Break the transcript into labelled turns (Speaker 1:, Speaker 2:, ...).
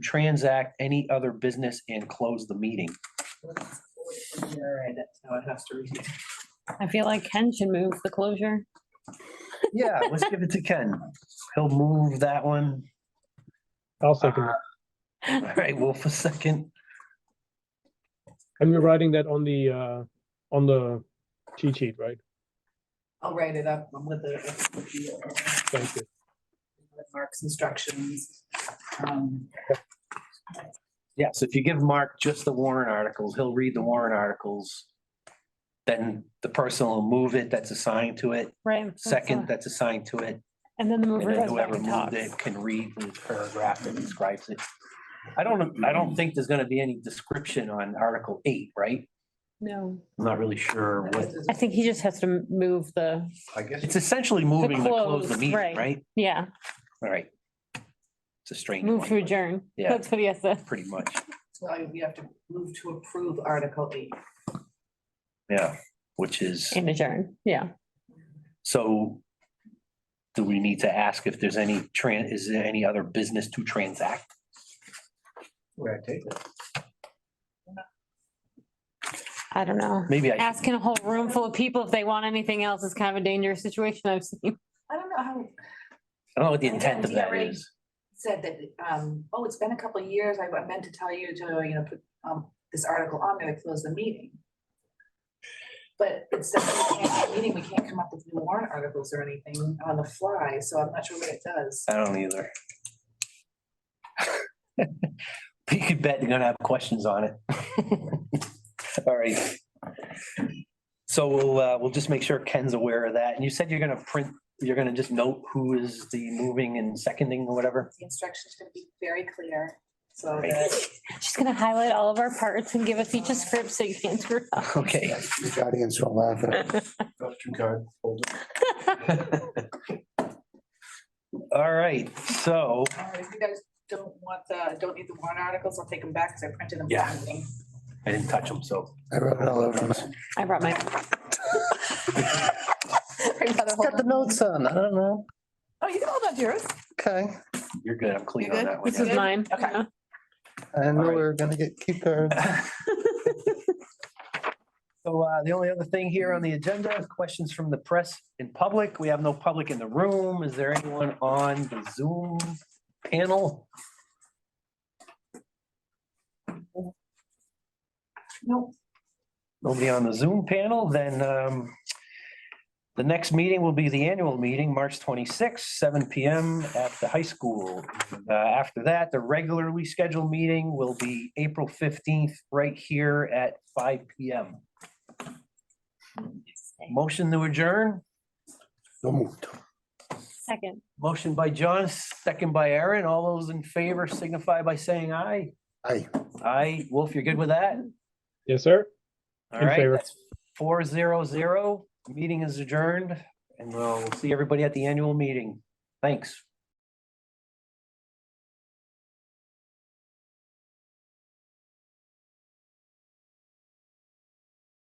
Speaker 1: transact any other business and close the meeting.
Speaker 2: Alright, that's how it has to read.
Speaker 3: I feel like Ken should move the closure.
Speaker 1: Yeah, let's give it to Ken. He'll move that one. Uh,
Speaker 4: I'll second that.
Speaker 1: All right, Wolf a second.
Speaker 4: And we're writing that on the, uh, on the cheat sheet, right?
Speaker 2: I'll write it up with the- with the, uh,
Speaker 4: Thank you.
Speaker 2: with Mark's instructions. Um,
Speaker 1: Yes, if you give Mark just the warrant articles, he'll read the warrant articles. Then the person will move it that's assigned to it,
Speaker 3: Right. that's
Speaker 1: second
Speaker 3: all.
Speaker 1: that's assigned to it.
Speaker 3: And then the
Speaker 1: And
Speaker 3: mover
Speaker 1: then
Speaker 3: goes back
Speaker 1: whoever
Speaker 3: and
Speaker 1: moved
Speaker 3: talks.
Speaker 1: it can read the paragraph that describes it. I don't, I don't think there's gonna be any description on Article eight, right?
Speaker 3: No,
Speaker 1: I'm not really sure what,
Speaker 3: I think he just has to m- move the,
Speaker 5: I guess
Speaker 1: it's essentially moving to close the
Speaker 3: close,
Speaker 1: meeting,
Speaker 3: right.
Speaker 1: right?
Speaker 3: yeah,
Speaker 1: All right. It's a strange
Speaker 3: move to
Speaker 1: one,
Speaker 3: adjourn.
Speaker 1: Yeah.
Speaker 3: That's what he has to.
Speaker 1: pretty much,
Speaker 2: So we have to move to approve Article eight.
Speaker 1: yeah, which is,
Speaker 3: And adjourn, yeah.
Speaker 1: so do we need to ask if there's any tran, is there any other business to transact?
Speaker 5: where I take it.
Speaker 3: I don't know.
Speaker 1: Maybe I,
Speaker 3: Asking a whole room full of people if they want anything else is kind of a dangerous situation I've seen.
Speaker 2: I don't know how,
Speaker 1: I don't know what the intent of
Speaker 2: Yeah,
Speaker 1: that
Speaker 2: right.
Speaker 1: is.
Speaker 2: said that, um, oh, it's been a couple of years, I I meant to tell you to, you know, put, um, this article on there to close the meeting. But it's the meeting, we can't come up with new warrant articles or anything on the fly, so I'm not sure what it does.
Speaker 1: I don't either. You could bet they're gonna have questions on it. All right. So we'll, uh, we'll just make sure Ken's aware of that. And you said you're gonna print, you're gonna just note who is the moving and seconding or whatever?
Speaker 2: The instructions are gonna be very clear, so
Speaker 1: Right.
Speaker 2: that
Speaker 3: She's gonna highlight all of our parts and give us each a script so you can't screw it
Speaker 1: Okay.
Speaker 5: The audience will laugh at
Speaker 3: up.
Speaker 5: Two card holder.
Speaker 1: All right, so,
Speaker 2: All right, Uh, if you guys don't want the, don't need the warrant articles, I'll take them back because I printed them. for
Speaker 1: Yeah.
Speaker 2: the meeting.
Speaker 1: I didn't touch them, so.
Speaker 5: I wrote it all over my.
Speaker 3: I brought my,
Speaker 2: I'd rather hold
Speaker 5: Got the
Speaker 2: on-
Speaker 5: notes on, I don't know,
Speaker 2: Oh, you can hold on to yours.
Speaker 5: okay,
Speaker 1: You're good, I'm clean
Speaker 2: You're
Speaker 1: on
Speaker 2: good?
Speaker 1: that one.
Speaker 3: this is
Speaker 1: yeah.
Speaker 3: mine.
Speaker 2: Okay.
Speaker 3: yeah.
Speaker 5: I know
Speaker 1: All right.
Speaker 5: we're gonna get key cards.
Speaker 1: So uh, the only other thing here on the agenda, is questions from the press in public. We have no public in the room. Is there anyone on the Zoom panel?
Speaker 2: Nope.
Speaker 1: Nobody on the Zoom panel, then um, the next meeting will be the annual meeting, March twenty-sixth, seven PM at the high school. Uh, After that, the regularly scheduled meeting will be April fifteenth, right here at five PM. Motion to adjourn,
Speaker 5: So moved.
Speaker 3: Second.
Speaker 1: motion by John, second by Aaron. All those in favor signify by saying aye.
Speaker 5: Aye.
Speaker 1: Aye, Wolf, you're good with that?
Speaker 4: Yes, sir?
Speaker 1: All
Speaker 4: In
Speaker 1: right,
Speaker 4: favor.
Speaker 1: that's four zero zero. Meeting is adjourned and we'll see everybody at the annual meeting. Thanks.